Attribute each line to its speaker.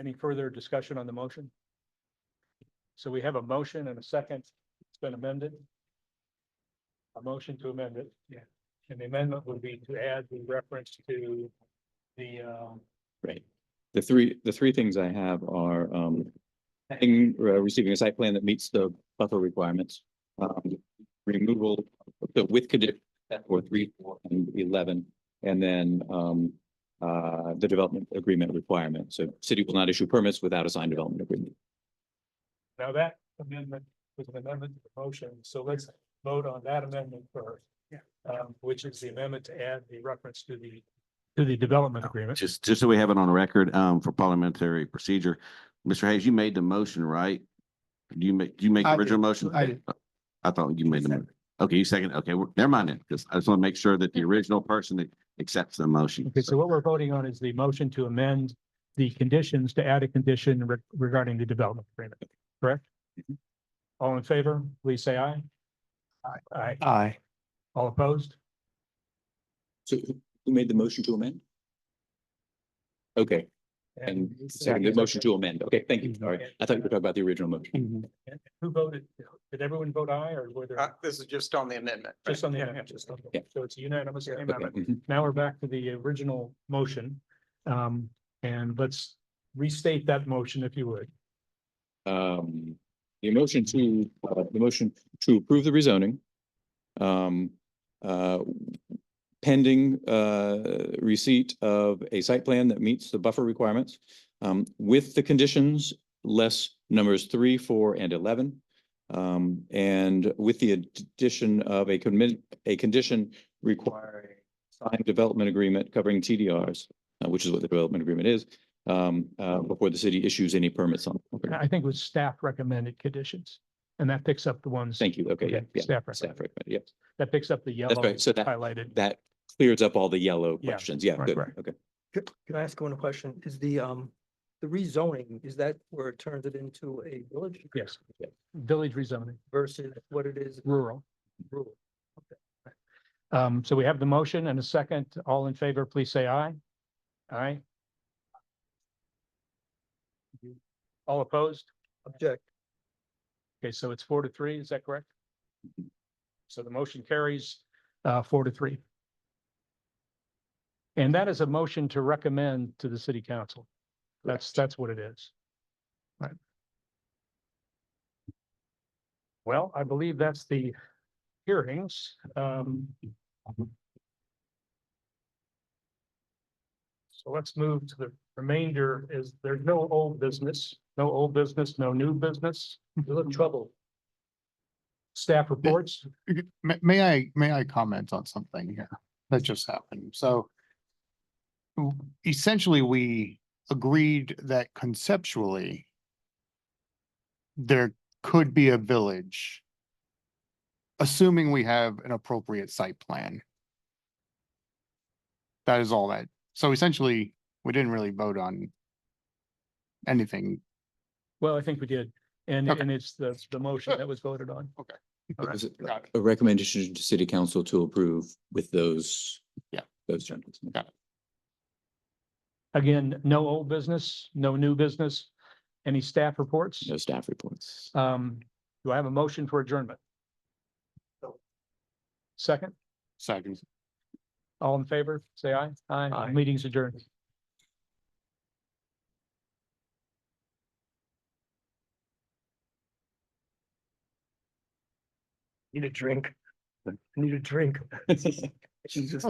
Speaker 1: Any further discussion on the motion? So we have a motion and a second. It's been amended. A motion to amend it. Yeah. And the amendment would be to add the reference to the, um,
Speaker 2: Right. The three, the three things I have are, um, having, uh, receiving a site plan that meets the buffer requirements. Um, removal, so with condition, for three, four, and eleven, and then, um, uh, the development agreement requirement. So city will not issue permits without a signed development agreement.
Speaker 1: now that amendment was an amendment to the motion. So let's vote on that amendment first. Yeah. Um, which is the amendment to add the reference to the, to the development agreement.
Speaker 3: Just, just so we have it on record, um, for parliamentary procedure, Mr. Hayes, you made the motion, right? Do you make, do you make the
Speaker 4: I did.
Speaker 3: original motion?
Speaker 4: I did.
Speaker 3: I thought you made the, mo-
Speaker 4: Second.
Speaker 3: okay, you second, okay, we're- never mind then, because I just want to make sure that the original person that accepts the motion.
Speaker 1: Okay, so what we're voting on is the motion to amend the conditions to add a condition re- regarding the development agreement, correct? All in favor, please say aye. Aye. Aye.
Speaker 4: Aye.
Speaker 1: All opposed?
Speaker 2: So who who made the motion to amend? Okay, and second, the motion to amend. Okay, thank you. Sorry. I thought you were talking about the original motion.
Speaker 1: and Who voted? Did everyone vote aye or were
Speaker 5: Uh,
Speaker 1: there
Speaker 5: this is just on the amendment. right?
Speaker 1: just on the
Speaker 5: Yeah,
Speaker 1: amendment?
Speaker 5: yeah.
Speaker 1: Just-
Speaker 2: Yeah.
Speaker 1: okay, So it's a unanimous
Speaker 2: Okay.
Speaker 1: amendment.
Speaker 2: mhm.
Speaker 1: Now we're back to the original motion. Um, and let's restate that motion if you would.
Speaker 2: um, the motion to, uh, the motion to approve the rezoning. Um, uh, pending, uh, receipt of a site plan that meets the buffer requirements. Um, with the conditions less numbers three, four, and eleven. Um, and with the addition of a commit, a condition requiring signed development agreement covering TDRs, uh, which is what the development agreement is, um, uh, before the city issues any permits on.
Speaker 1: I think it was staff recommended conditions and that picks up the ones.
Speaker 2: Thank you. Okay, yeah,
Speaker 1: Okay,
Speaker 2: yeah.
Speaker 1: Staff
Speaker 2: Staff
Speaker 1: recommended.
Speaker 2: recommend, yep.
Speaker 1: That picks up the yellow
Speaker 2: right, so that-
Speaker 1: highlighted.
Speaker 2: That clears up all the yellow
Speaker 1: Yeah,
Speaker 2: questions. Yeah,
Speaker 1: right,
Speaker 2: good.
Speaker 1: right.
Speaker 2: Okay.
Speaker 6: Could, could I ask one question? Is the, um, the rezoning, is that where it turns it into a village?
Speaker 1: Yes. Village rezoning,
Speaker 6: Versus what it is
Speaker 1: rural.
Speaker 6: rural?
Speaker 1: Um, so we have the motion and a second. All in favor, please say aye. Aye. All opposed?
Speaker 6: Object.
Speaker 1: Okay, so it's four to three, is that correct? So the motion carries uh four to three. And that is a motion to recommend to the city council. That's, that's what it is. Right. Well, I believe that's the hearings. Um. So let's move to the remainder is there's no old business, no old business, no new business.
Speaker 6: You're
Speaker 1: Mm.
Speaker 6: in trouble.
Speaker 1: Staff reports.
Speaker 4: May, may I, may I comment on something here that just happened? So w- essentially, we agreed that conceptually there could be a village, assuming we have an appropriate site plan. That is all that. So essentially, we didn't really vote on anything.
Speaker 1: Well, I think we did. And,
Speaker 4: Okay.
Speaker 1: and it's the, the motion that was voted on. All right.
Speaker 2: Was it
Speaker 4: Got it.
Speaker 2: A recommendation to city council to approve with those.
Speaker 4: Yeah.
Speaker 2: Those changes.
Speaker 1: Again, no old business, no new business. Any staff reports?
Speaker 2: No staff reports.
Speaker 1: Um, do I have a motion for adjournment? Second,
Speaker 4: Second.
Speaker 1: all in favor, say aye. Aye.
Speaker 6: Aye.
Speaker 1: Meeting's adjourned.
Speaker 6: Need a drink. Need a drink. She's just